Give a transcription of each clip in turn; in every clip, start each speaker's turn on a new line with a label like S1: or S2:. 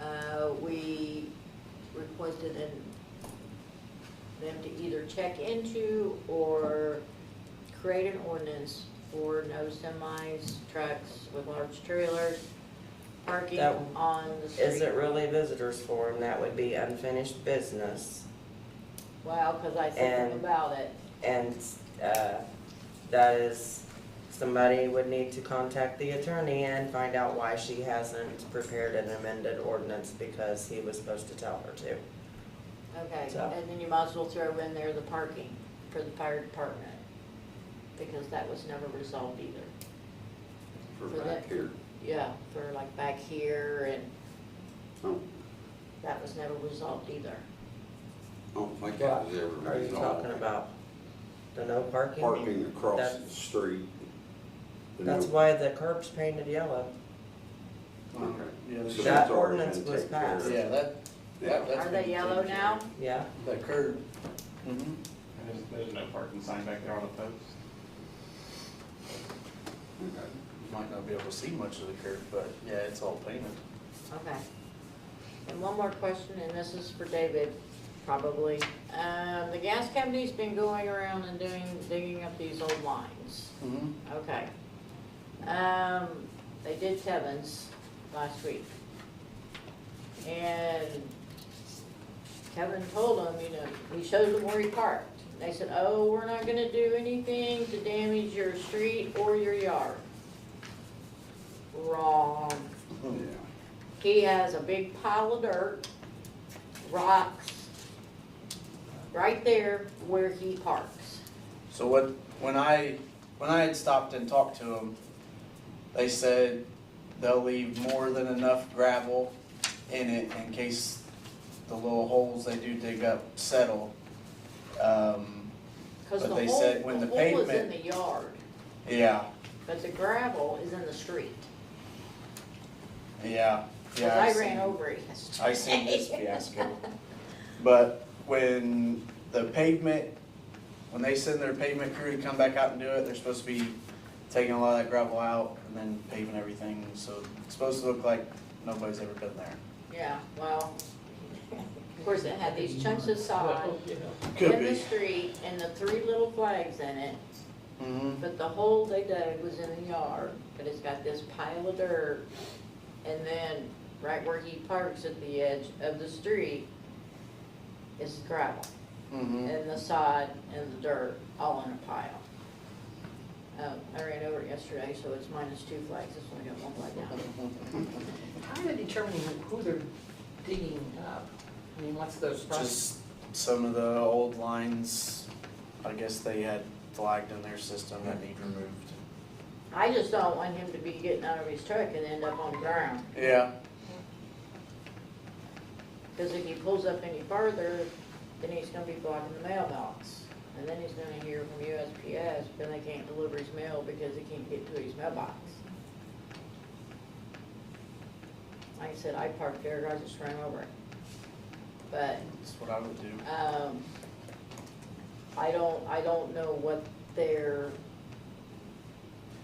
S1: Uh, we requested an, them to either check into or create an ordinance for no semis, trucks with large trailers parking
S2: That-
S1: on the street.
S2: Is it really visitors forum? That would be unfinished business.
S1: Wow, cause I said something
S2: And-
S1: about it.
S2: And, uh, that is, somebody would need to contact the attorney and find out why she hasn't prepared an amended ordinance because he was supposed to tell her to.
S1: Okay,
S2: So-
S1: and then you might as well throw in there the parking for the fire department, because that was never resolved either.
S3: for
S1: For
S3: back
S1: that-
S3: here.
S1: Yeah, for like back here and
S3: Oh,
S1: that was never resolved either.
S3: oh, like that was ever
S2: Are you talking
S3: resolved.
S2: about the no parking?
S3: Parking across the
S2: That's-
S3: street. You
S2: That's
S3: know,
S2: why the curb's painted yellow.
S3: Okay. So
S4: Yeah, that-
S2: That
S3: that's already
S2: ordinance
S3: been
S2: was
S3: taken care of.
S2: passed.
S4: yeah, that, that, that's.
S1: Are they
S4: been
S1: yellow
S4: taken
S1: now?
S2: Yeah,
S4: care of. That curb. Mhm.
S5: And There's, there's no parking sign back there on the post.
S3: Okay.
S4: You Might not be able to see much of the curb, but yeah, it's all painted.
S1: Okay. And one more question, and this is for David, probably. Um, the gas company's been going around and doing, digging up these old lines.
S4: Mm-hmm.
S1: Okay. Um, they did Kevin's last week. And Kevin told them, you know, he showed them where he parked. They said, oh, we're not gonna do anything to damage your street or your yard. Wrong.
S3: Yeah,
S1: He has a big pile of dirt, rocks, right there where he parks.
S4: So what, when I, when I had stopped and talked to them, they said they'll leave more than enough gravel in it in case the little holes they do dig up settle. Um,
S1: Cause the
S4: But they
S1: hole,
S4: said when
S1: the
S4: the
S1: hole is in
S4: pavement-
S1: the yard,
S4: yeah,
S1: but the gravel is in the street.
S4: yeah,
S1: Cause
S4: yeah.
S1: I
S4: I've
S1: ran
S4: seen-
S1: over it yesterday.
S4: I seen this fiasco. But when the pavement, when they send their pavement crew to come back out and do it, they're supposed to be taking a lot of that gravel out and then paving everything, so it's supposed to look like nobody's ever been there.
S1: Yeah, well, of course, it had these chunks of sod
S4: Could
S1: in the
S4: be.
S1: street and the three little flags in it.
S4: Mm-hmm.
S1: But the hole they dug was in the yard, but it's got this pile of dirt. And then right where he parks at the edge of the street is gravel
S4: Mm-hmm.
S1: and the sod and the dirt all in a pile. Um, I ran over it yesterday, so it's minus two flags, it's only got one flag down.
S6: How do they determine who they're digging up? I mean, what's those process?
S4: Just some of the old lines, I guess they had flagged in their system that need removed.
S1: I just don't want him to be getting out of his truck and end up on the ground,
S4: Yeah,
S1: because if he pulls up any further, then he's gonna be blocking the mailbox. And then he's gonna hear from USPS, but they can't deliver his mail because he can't get to his mailbox. Like I said, I parked there, I just ran over it. But
S4: that's what I would do.
S1: Um, I don't, I don't know what their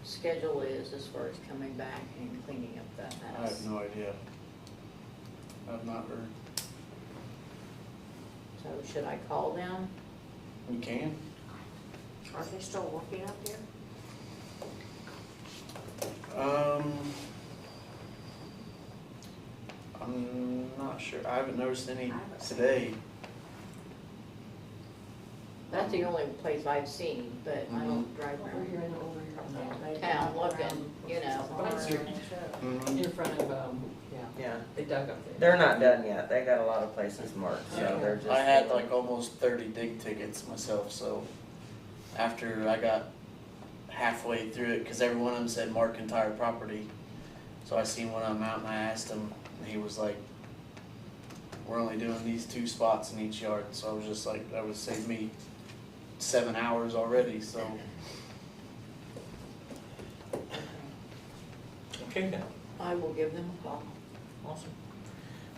S1: schedule is as far as coming back and cleaning up that
S4: I have
S1: mess.
S4: no idea. I've not heard.
S1: So should I call them?
S4: You can?
S1: Are they still working up there?
S4: Um, I'm not sure. I haven't noticed any today.
S1: That's the only place I've seen, but I don't drive
S6: Over
S1: around
S6: here and over here.
S1: town looking, you know.
S6: That's your-
S4: Mhm.
S6: In front of, um, yeah,
S2: yeah.
S6: they dug up there.
S2: They're not done yet. They got a lot of places marked, so they're just.
S4: I had like almost thirty dig tickets myself, so after I got halfway through it, cause every one of them said mark entire property. So I seen one of them out and I asked him, and he was like, we're only doing these two spots in each yard, so I was just like, that would save me seven hours already, so.
S7: Okay then,
S1: I will give them a call.
S7: awesome.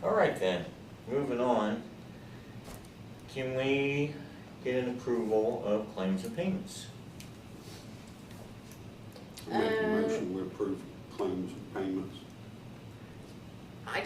S7: All right then, moving on. Can we get an approval of claims and payments?
S3: I make a
S1: Uh,
S3: motion, we approve claims and payments.